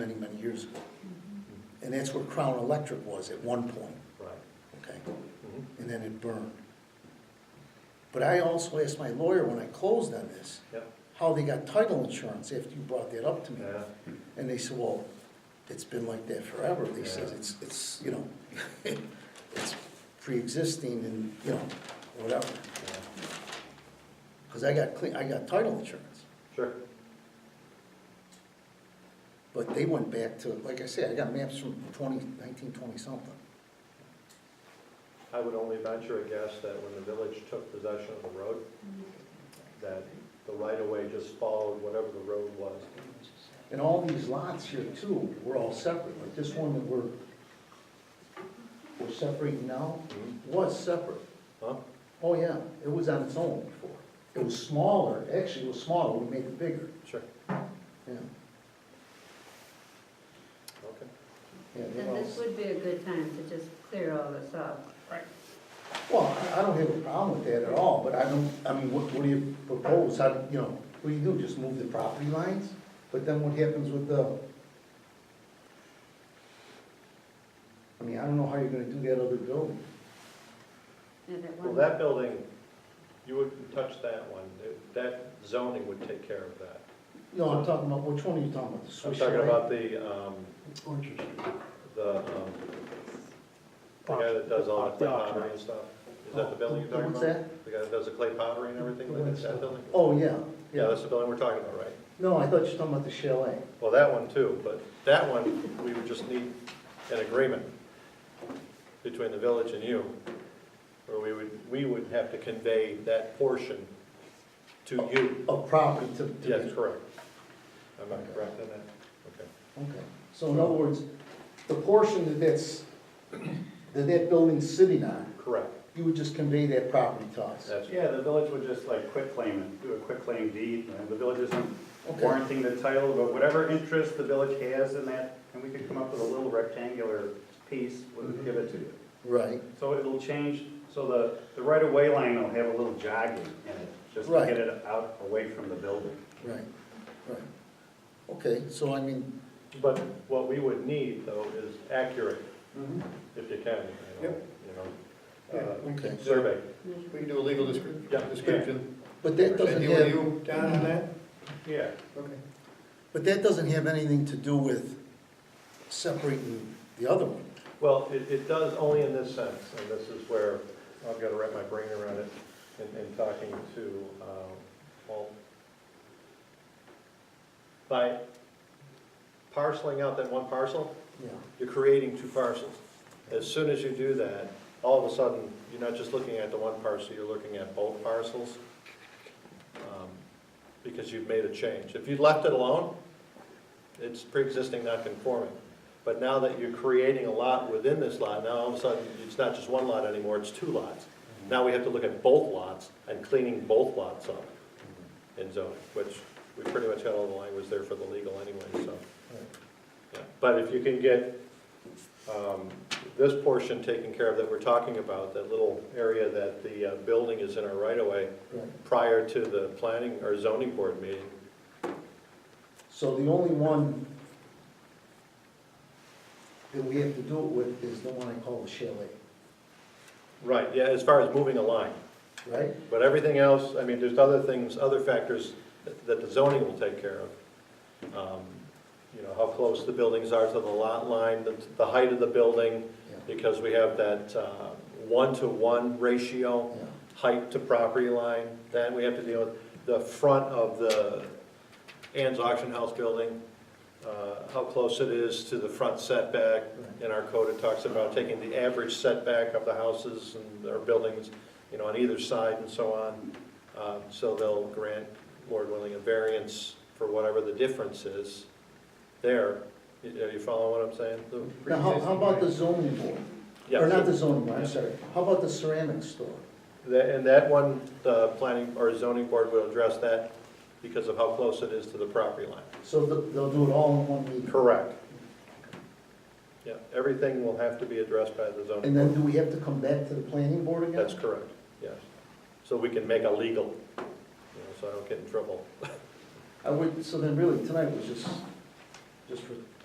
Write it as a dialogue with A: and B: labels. A: and that's where Crown Electric was at one point,
B: Right.
A: okay?
B: Mhm.
A: And then it burned. But I also asked my lawyer when I closed on this,
B: Yep.
A: how they got title insurance after you brought that up to me.
B: Yeah.
A: And they said, well, it's been like that forever. They said,
B: Yeah.
A: it's, it's, you know, it's pre-existing and, you know, whatever.
B: yeah.
A: Because I got clean, I got title insurance.
B: Sure.
A: But they went back to, like I said, I got maps from 20, 1920 something.
B: I would only venture a guess that when the village took possession of the road, that the right-of-way just followed whatever the road was.
A: And all these lots here too, were all separate, like this one that we're, we're separating now, was separate.
B: Huh?
A: Oh, yeah, it was on its own before. It was smaller, actually it was smaller, we made it bigger,
B: Sure.
A: yeah.
B: Okay.
A: yeah, they
C: And
A: all-
C: this would be a good time to just clear all this up.
A: Well, I- I don't have a problem with that at all, but I don't, I mean, what, what do you propose? How, you know, what do you do, just move the property lines? But then what happens with the? I mean, I don't know how you're gonna do that other building.
C: And it
B: Well,
C: won't-
B: that building, you wouldn't touch that one. It- That zoning would take care of that.
A: No, I'm talking about, which one are you talking about? The
B: I'm
A: Swiss
B: talking
A: chalet?
B: about the, um,
D: Orchard Street.
B: the, um, the guy that does all the clay
D: The auction.
B: pottery and stuff. Is that the building you're
A: The- the
B: talking about?
A: one's
B: The guy that does the clay pottery and everything,
D: The
B: like
D: one's
B: that
D: that-
B: building?
A: Oh, yeah,
B: Yeah,
A: yeah.
B: that's the building we're talking about, right?
A: No, I thought you were talking about the chalet.
B: Well, that one too, but that one, we would just need an agreement between the village and you, where we would, we would have to convey that portion to you.
A: Of property to. to-
B: Yes, correct. Am I correct in that?
A: Okay, so in other words, the portion that that's, that that building's sitting on,
B: Okay, correct.
A: You would just convey that property to us?
B: That's,
D: Yeah, the village would just like quit claim it, do a quit claim deed, and the village isn't
A: Okay.
D: warranting the title, but whatever interest the village has in that, and we could come up with a little rectangular piece,
A: Mm-hmm.
D: we'll give it to you.
A: Right,
D: So it'll change, so the, the right-of-way line will have a little jogging in it, just to
A: Right.
D: get it out, away from the building.
A: right, right. Okay, so I mean,
B: but what we would need though is accurate, if you can, you know, you know. uh,
A: okay,
B: Survey,
E: We can do a legal descrip-
B: Yeah.
E: description.
A: but that doesn't
E: Cindy, were
A: have,
E: you down on that?
B: yeah.
E: Okay.
A: but that doesn't have anything to do with separating the other one.
B: Well, it, it does only in this sense, and this is where I've got to wrap my brain around it in, in talking to, um, Walt. By parceling out that one parcel,
A: Yeah.
B: you're creating two parcels. As soon as you do that, all of a sudden, you're not just looking at the one parcel, you're looking at both parcels. um, Because you've made a change. If you left it alone, it's pre-existing non-conforming. But now that you're creating a lot within this lot, now all of a sudden, it's not just one lot anymore, it's two lots. Now we have to look at both lots and cleaning both lots up in zoning, which we pretty much had all the language there for the legal anyway, so. Yeah, But if you can get um, this portion taken care of that we're talking about, that little area that the uh, building is in our right-of-way
A: Right.
B: prior to the planning or zoning board meeting,
A: So the only one that we have to do it with is the one I call the chalet,
B: right, yeah, as far as moving a line.
A: right?
B: But everything else, I mean, there's other things, other factors that- that the zoning will take care of. Um, You know, how close the buildings are to the lot line, the the height of the building,
A: Yeah.
B: because we have that uh, one-to-one ratio.
A: Yeah.
B: height to property line, then we have to deal with the front of the Ann's Auction House building, uh, how close it is to the front setback.
A: Right.
B: In our code, it talks about taking the average setback of the houses and their buildings, you know, on either side and so on. Uh, So they'll grant, Lord willing, a variance for whatever the difference is there. You- Are you following what I'm saying, Lou?
A: Now, how, how about the zoning board?
B: Yeah.
A: Or not the zoning board, I'm
B: Yeah.
A: sorry. How about the ceramic store?
B: That- And that one, the planning or zoning board will address that because of how close it is to the property line.
A: So th- they'll do it all in one meeting?
B: Correct. Yeah, everything will have to be addressed by the zoning
A: And then
B: board.
A: do we have to come back to the planning board again?
B: That's correct, yes. So we can make a legal, you know, so I don't get in trouble.
A: I would, so then really, tonight was just, just for